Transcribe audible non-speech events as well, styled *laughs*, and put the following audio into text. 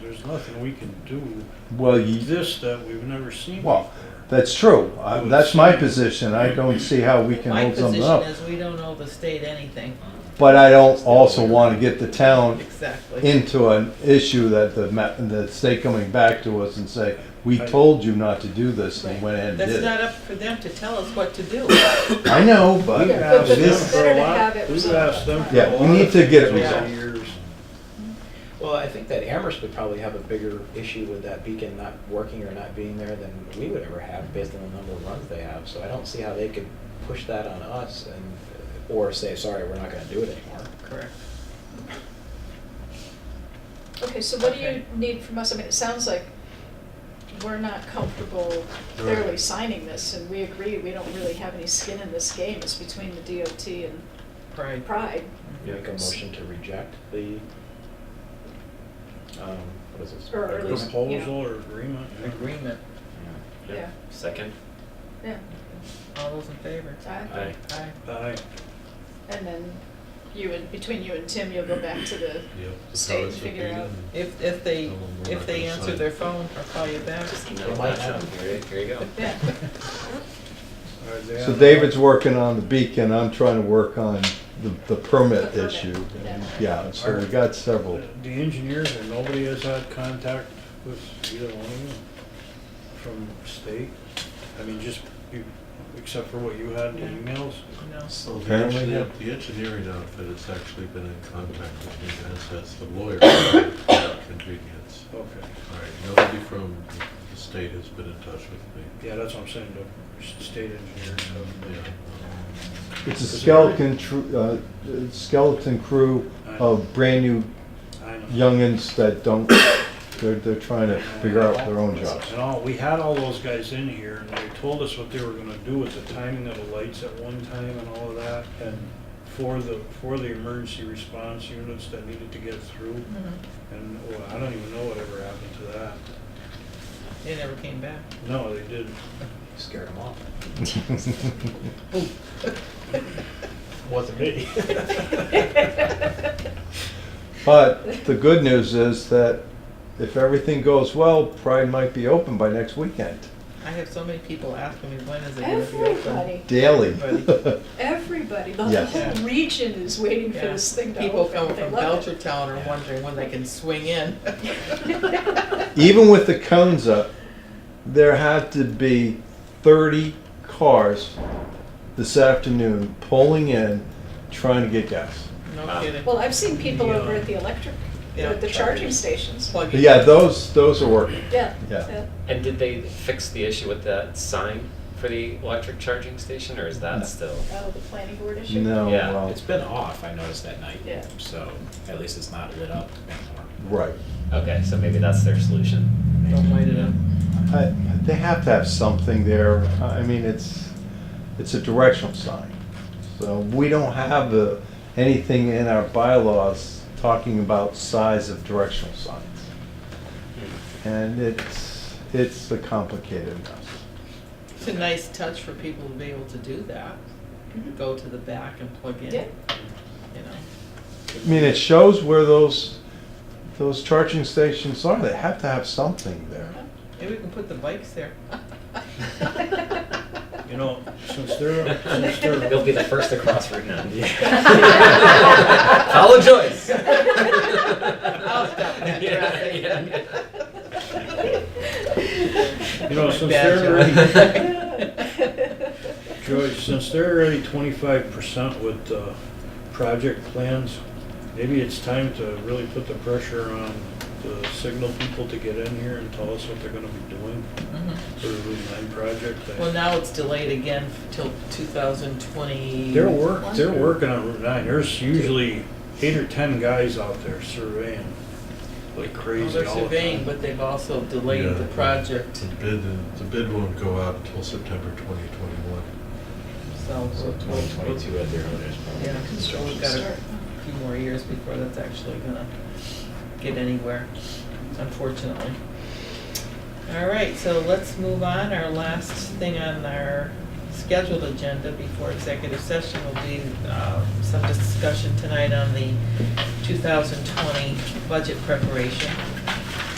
there's nothing we can do Well, with you, this that we've never seen Well, before. that's true. I, that's my position. I don't see how we can My hold something position up. is we don't owe the state anything, But I don't also want to get the town exactly. into an issue that the, ma- the state coming back to us and say, we told you not to do this and went ahead and That's did not it. up for them to tell us what to do. I know, We've but asked it them is, for Better a to lot, have it we've resolved. asked them for Yeah, a we lot need of to get it things over the resolved. years. Well, I think that Amherst would probably have a bigger issue with that beacon not working or not being there than we would ever have based on the number of runs they have. So I don't see how they could push that on us and, uh, or say, sorry, we're not gonna do it anymore. Correct. Okay, so what do you Okay. need from us? I mean, it sounds like we're not comfortable clearly signing this, and we agree, we don't really have any skin in this game. It's between the DOT and Right. Pride. Make a motion to reject the, um, what is this? Or at least- Proposal or agreement. yeah. Agreement. Yeah. Yeah, Second? yeah. All those in favor? Aye. Aye. Aye. Aye. And then you and, between you and Tim, you'll go back to the state and figure out. If, if they, if they answer their phone or call you back, Just keep No, it. watch out. Here, here you go. Yeah, All right, they so have- David's working on the beacon, I'm trying to work on the, the permit The permit, issue. yeah. Yeah, so we got several. The engineers, and nobody has had contact with either one of you from state? I mean, just, you- except for what you had in the emails? no. So the Apparently, engineer, yeah. the engineering outfit has actually been in contact with me, as has the lawyer, for convenience. Okay, All right, nobody from the state has been in touch with me. yeah, that's what I'm saying, the state engineers Yeah. have. It's a skeleton, tru- uh, skeleton crew of brand-new I know. youngins that don't, they're, they're trying to figure out their own *laughs* jobs. And all, we had all those guys in here, and they told us what they were gonna do with the timing of the lights at one time and all of that, and for the, for the emergency response units that needed to get through, Mhm. and, well, I don't even know whatever happened to that. They never came back. No, they didn't. *laughs* Scared them off. Wasn't me. *laughs* *laughs* But the good news is that if everything goes well, Pride might be open by next weekend, *laughs* I have so many people asking me, when is it gonna be everybody, open? daily. everybody, the Yes. whole region is waiting for Yeah. this thing to People open. coming They from love it. Belchertown are wondering when they can swing *laughs* in. Even with the cones up, there had to be thirty cars this afternoon pulling in, trying to get gas. No Wow. kidding. Well, I've seen people Yeah. over at the electric, Yeah. the charging stations. Plug But it yeah, in. those, those are working. Yeah, Yeah. yeah. And did they fix the issue with that sign for the electric charging station, or is No. that still? Oh, the planning board issue? No, Yeah, well, *laughs* It's been off, I noticed that night. Yeah. *laughs* So at least it's not lit up anymore. right. Okay, so maybe that's their solution. Don't light it up. I- They have to have something there. I mean, it's, it's a directional sign. So we don't have the, anything in our bylaws talking about size of directional signs. And it's, it's a complicated mess. It's a nice touch for people to be able to do that, Mhm. go to the back and plug in, you Yeah. know. I mean, it shows where those, those charging stations are. They have to have something there. Maybe we can put the bikes *laughs* there. You know, since they're, since they're, They'll be the first to cross Route Nine. *laughs* Yeah. Follow *laughs* Joyce. I'll stop that traffic. You know, My since bad they're job. *laughs* *laughs* Joyce, since they're already twenty-five percent with, uh, project plans, maybe it's time to really put the pressure on the signal people to get in here and tell us what they're gonna be doing Mhm. for the Route Nine project. They- Well, now it's delayed again f- till two thousand twenty. They're work, they're working on Route Nine. There's usually eight or ten guys out there surveying like Well, crazy they're all the surveying, time. but they've also delayed the Yeah. project, The bid, the bid won't go out until September 2021. so. So we'll- twenty twenty-two at their owners. Yeah, so we've got a Start. few more years before that's actually gonna get anywhere, unfortunately. All right, so let's move on. Our last thing on our scheduled agenda before executive session will be uh, some discussion tonight on the 2020 budget preparation.